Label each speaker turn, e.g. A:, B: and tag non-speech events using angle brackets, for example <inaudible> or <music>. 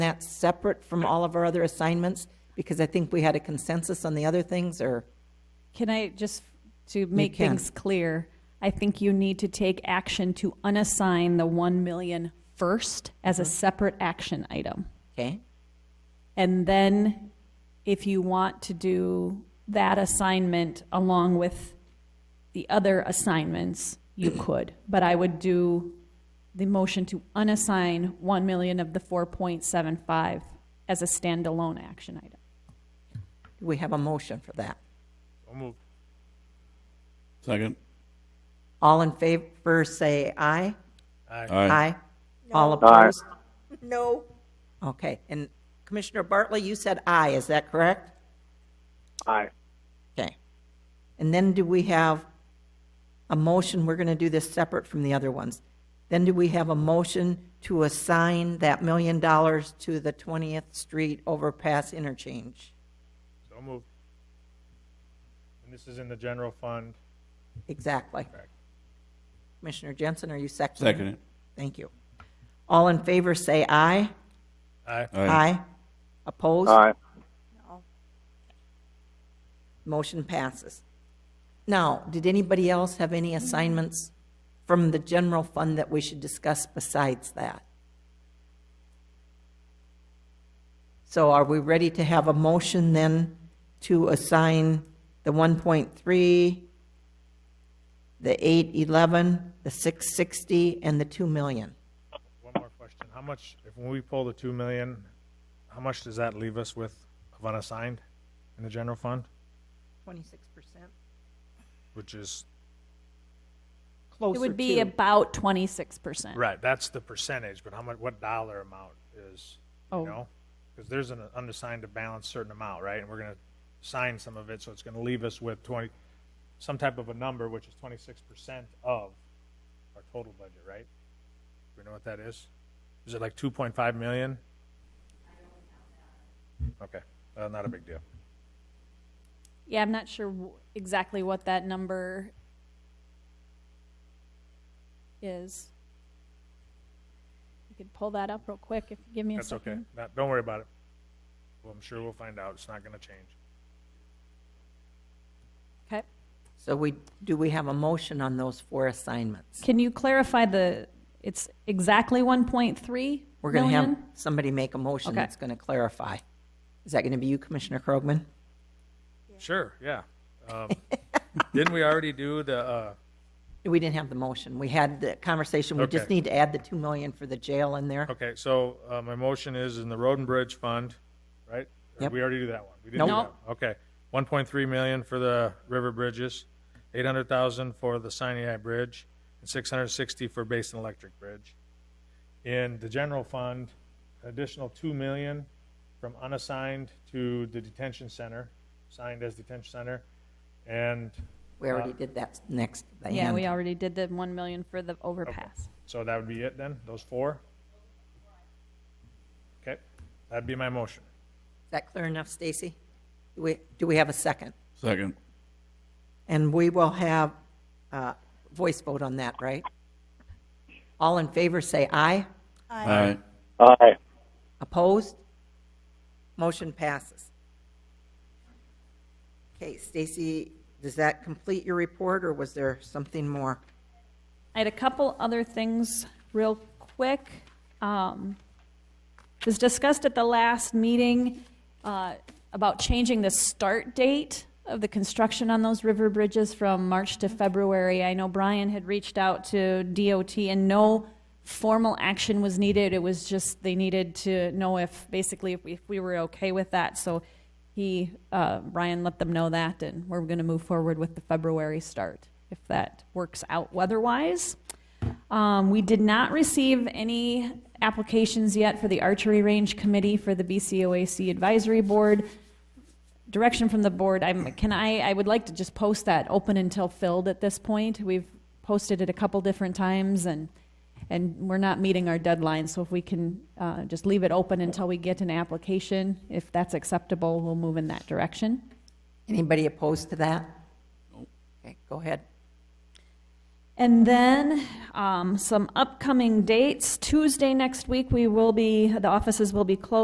A: that separate from all of our other assignments? Because I think we had a consensus on the other things, or,
B: Can I just, to make
A: can.
B: things clear, I think you need to take action to unassign the 1 million first as a separate action item.
A: okay?
B: And then if you want to do that assignment along with the other assignments, you could. But I would do the motion to unassign 1 million of the 4.75 as a standalone action item.
A: Do we have a motion for that?
C: So moved.
D: Second.
A: All in favor, say aye.
D: Aye.
A: Aye. All opposed? No. Okay, and Commissioner Bartley, you said aye, is that correct?
C: Aye.
A: Okay. And then do we have a motion, we're going to do this separate from the other ones. Then do we have a motion to assign that million dollars to the 20th Street overpass interchange?
C: So moved. And this is in the general fund.
A: Exactly. Commissioner Jensen, are you second?
D: Second it.
A: Thank you. All in favor, say aye.
C: Aye.
A: Aye. Opposed?
C: Aye.
A: Motion passes. Now, did anybody else have any assignments from the general fund that we should discuss besides that? So are we ready to have a motion then to assign the 1.3, the 811, the 660, and the 2 million?
C: One more question. How much, if when we pull the two million, how much does that leave us with of unassigned in the general fund?
A: 26%?
C: Which is,
A: Closer
B: It would be
A: to.
B: about 26%.
C: right, that's the percentage, but how much, what dollar amount is, you
B: Oh.
C: know? Because there's an unassigned to balance certain amount, right? And we're gonna sign some of it, so it's gonna leave us with twenty, some type of a number, which is twenty-six percent of our total budget, right? Do we know what that is? Is it like two point five million? Okay, uh, not a big deal.
B: Yeah, I'm not sure w- exactly what that number is. You could pull that up real quick if you give me a
C: That's okay.
B: second.
C: Not, don't worry about it. Well, I'm sure we'll find out. It's not gonna change.
B: Okay.
A: So we, do we have a motion on those four assignments?
B: Can you clarify the, it's exactly 1.3
A: We're going to have
B: million?
A: somebody make a motion
B: Okay.
A: that's going to clarify. Is that going to be you, Commissioner Krogman?
C: Sure, yeah. Um, <laughs> Didn't we already do the, uh,
A: We didn't have the motion. We had the conversation. We just
C: Okay.
A: need to add the 2 million for the jail in there.
C: Okay, so uh, my motion is in the Road and Bridge Fund, right? Or
A: Yep.
C: We already do that one. We didn't do
B: Nope.
C: that one. Okay, 1.3 million for the river bridges, 800,000 for the Sinai Bridge, and 660 for Basin Electric Bridge. In the general fund, an additional 2 million from unassigned to the detention center, signed as detention center, and
A: We already did that next. at the
B: Yeah,
A: end.
B: we already did the 1 million for the overpass.
C: so that would be it then, those four? Okay, that'd be my motion.
A: Is that clear enough, Stacy? Do we, do we have a second?
D: Second.
A: And we will have a voice vote on that, right? All in favor, say aye.
D: Aye.
E: Aye.
A: Opposed? Motion passes. Okay, Stacy, does that complete your report, or was there something more?
B: I had a couple other things real quick. Um, It was discussed at the last meeting uh, about changing the start date of the construction on those river bridges from March to February. I know Brian had reached out to DOT and no formal action was needed. It was just, they needed to know if, basically, if we, if we were okay with that. So he, uh, Brian let them know that and we're going to move forward with the February start if that works out weather-wise. Um, we did not receive any applications yet for the archery range committee for the BCOAC advisory board. Direction from the board, I'm, can I, I would like to just post that open until filled at this point. We've posted it a couple different times and, and we're not meeting our deadline, so if we can, uh, just leave it open until we get an application, if that's acceptable, we'll move in that direction.
A: Anybody opposed to that? Okay, go ahead.
B: And then um, some upcoming dates. Tuesday next week, we will be, the offices will be closed.